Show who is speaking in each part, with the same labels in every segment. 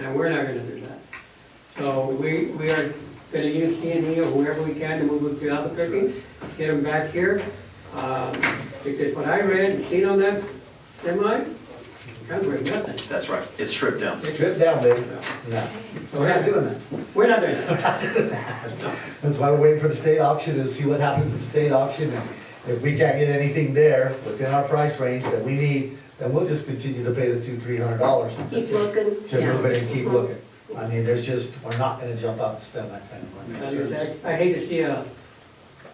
Speaker 1: and we're not gonna do that. So we, we are gonna use C and E or whoever we can to move them to Albuquerque, get them back here. Um, Because what I read and seen on that semi, comes with nothing.
Speaker 2: That's right, it's stripped down.
Speaker 3: Strip down, baby. No,
Speaker 1: So
Speaker 3: we're not doing that.
Speaker 1: We're not doing that.
Speaker 3: That's why we're waiting for the state auction to see what happens at the state auction. And If we can't get anything there within our price range that we need, then we'll just continue to pay the two, three hundred dollars.
Speaker 4: Keep looking.
Speaker 3: To move it and keep
Speaker 4: Yeah.
Speaker 3: looking. I mean, there's just, we're not gonna jump out and spend that kind
Speaker 1: Not
Speaker 3: of money.
Speaker 1: exact- I hate to see a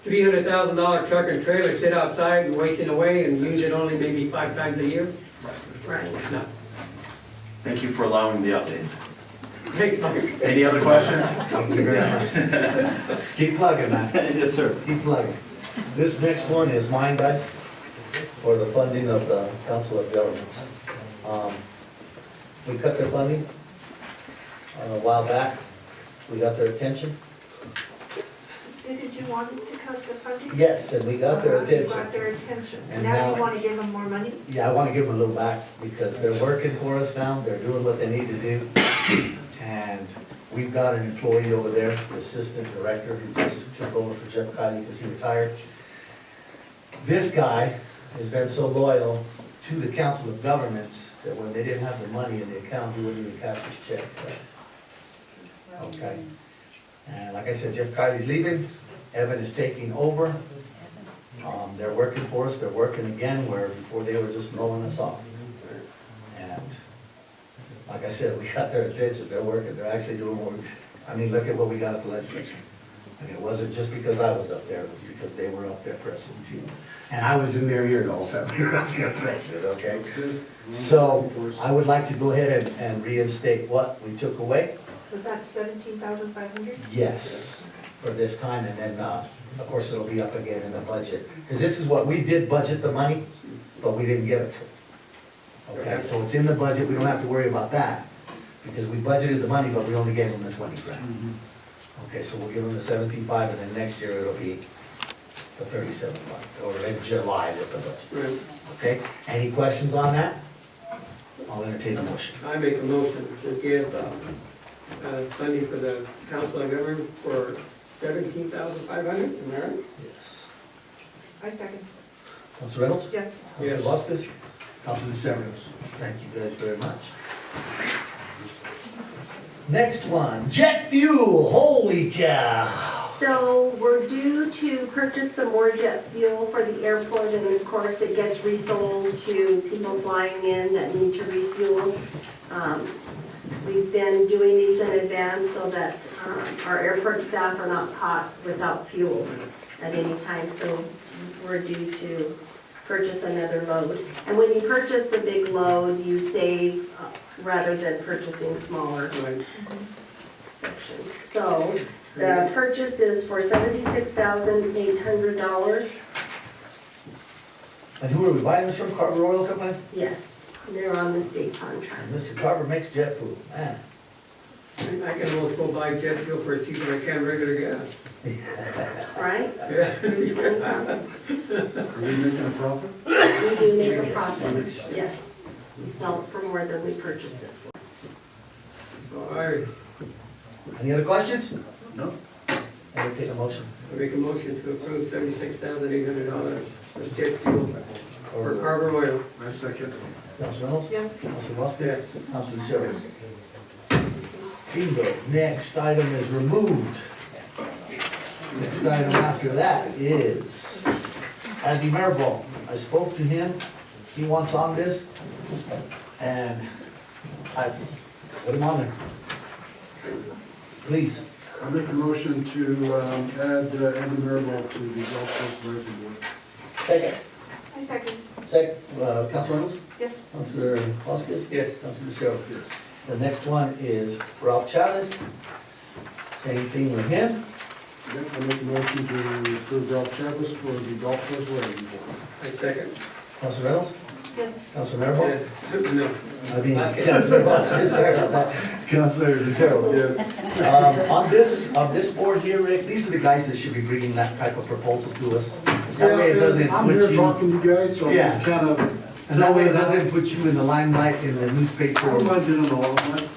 Speaker 1: three hundred thousand dollar truck and trailer sit outside and wasting away and use it only maybe five times a year.
Speaker 4: Right.
Speaker 1: No,
Speaker 2: Thank you for allowing the update.
Speaker 1: thanks, Mike.
Speaker 2: Any other questions?
Speaker 3: Thank you very much. Just Keep plugging, man.
Speaker 2: Yes, sir.
Speaker 3: Keep plugging. This next one is mine, guys, for the funding of the Council of Governments. Um, We cut their funding uh, a while back. We got their attention.
Speaker 5: Did you want us to cut the funding?
Speaker 3: Yes, and Uh, we got their
Speaker 5: You
Speaker 3: attention.
Speaker 5: got their attention.
Speaker 3: And
Speaker 5: And now
Speaker 3: now-
Speaker 5: you want to give them more money?
Speaker 3: Yeah, I want to give them a little back because they're working for us now. They're doing what they need to do. And we've got an employee over there, the assistant director, who just took over for Jeff Kylie because he retired. This guy has been so loyal to the Council of Governments that when they didn't have the money in the account, he wouldn't even cash his checks. Okay. And like I said, Jeff Kylie's leaving. Evan is taking over. Um, they're working for us, they're working again where before they were just blowing us off. And, like I said, we got their attention, they're working, they're actually doing what, we- I mean, look at what we got at the legislature. And it wasn't just because I was up there, it was because they were up there pressing too. And I was in their ear the whole time we were up there pressing, okay? So, I would like to go ahead and, and reinstate what we took away.
Speaker 5: Was that seventeen thousand five hundred?
Speaker 3: Yes, for this time, and then, uh, of course, it'll be up again in the budget. Because this is what, we did budget the money, but we didn't give it to them. Okay, so it's in the budget, we don't have to worry about that, because we budgeted the money, but we only gave them the twenty grand. Okay, so we'll give them the seventeen-five, and then next year it'll be the thirty-seven-five, or in July with the budget,
Speaker 1: Right.
Speaker 3: okay? Any questions on that? I'll entertain a motion.
Speaker 1: I make a motion to give uh, uh, funding for the council of government for seventeen thousand five hundred, am I right?
Speaker 3: Yes.
Speaker 5: I second.
Speaker 3: Counselor Reynolds?
Speaker 5: Yes.
Speaker 3: Counselor
Speaker 1: Yes.
Speaker 3: Voskis? Counselor Severance? Thank you guys very much. Next one, jet fuel, holy cow.
Speaker 4: So we're due to purchase some more jet fuel for the airport, and of course, it gets resold to people flying in that need to refuel. Um, We've been doing these in advance so that um, our airport staff are not caught without fuel at any time, so we're due to purchase another load. And when you purchase a big load, you save uh, rather than purchasing smaller
Speaker 1: Right.
Speaker 4: section. So the purchase is for seventy-six thousand eight hundred dollars.
Speaker 3: And who are we buying this from, Carver Oil Company?
Speaker 4: Yes, they're on the state contract.
Speaker 3: And Mr. Carver makes jet fuel, man.
Speaker 1: I can almost go buy jet fuel for as cheap as I can regular gas.
Speaker 4: Right?
Speaker 1: Yeah.
Speaker 6: Are we making a profit?
Speaker 4: We do make a profit, yes. We sell it for more than we purchase it for.
Speaker 1: So I
Speaker 3: Any other questions?
Speaker 6: No.
Speaker 3: Entertain a motion.
Speaker 1: I make a motion to approve seventy-six thousand eight hundred dollars of jet fuel for Carver Oil.
Speaker 6: I second.
Speaker 3: Counselor Reynolds?
Speaker 5: Yes.
Speaker 3: Counselor Voskis? Counselor Severance? Bingo, next item is removed. Next item after that is Andy Marable. I spoke to him, he wants on this, and I put him on there. Please,
Speaker 6: I make a motion to um, add uh, Andy Marable to the golf course advisory board.
Speaker 3: second,
Speaker 5: I second.
Speaker 3: second, uh, Council Reynolds?
Speaker 5: Yes.
Speaker 3: Councilor Voskis?
Speaker 1: Yes.
Speaker 3: Councilor Lucero? The next one is Ralph Chavez. Same thing with him.
Speaker 6: Yep, I make a motion to approve Ralph Chappis for the golf course advisory board.
Speaker 1: I second.
Speaker 3: Councilor Reynolds?
Speaker 5: Yes.
Speaker 3: Councilor Marable?
Speaker 1: Yeah. No.
Speaker 3: I mean,
Speaker 1: Vasquez.
Speaker 3: Councilor Vasquez, sorry about that. Councilor Lucero.
Speaker 6: Yes.
Speaker 3: Um, on this, on this board here, Rick, these are the guys that should be bringing that type of proposal to us. That way it doesn't
Speaker 6: I'm
Speaker 3: put
Speaker 6: here
Speaker 3: you,
Speaker 6: talking to you guys, so I'm
Speaker 3: Yeah.
Speaker 6: just kind of.
Speaker 3: and that way it doesn't put you in the limelight in the newspaper.
Speaker 6: I don't mind doing all of that.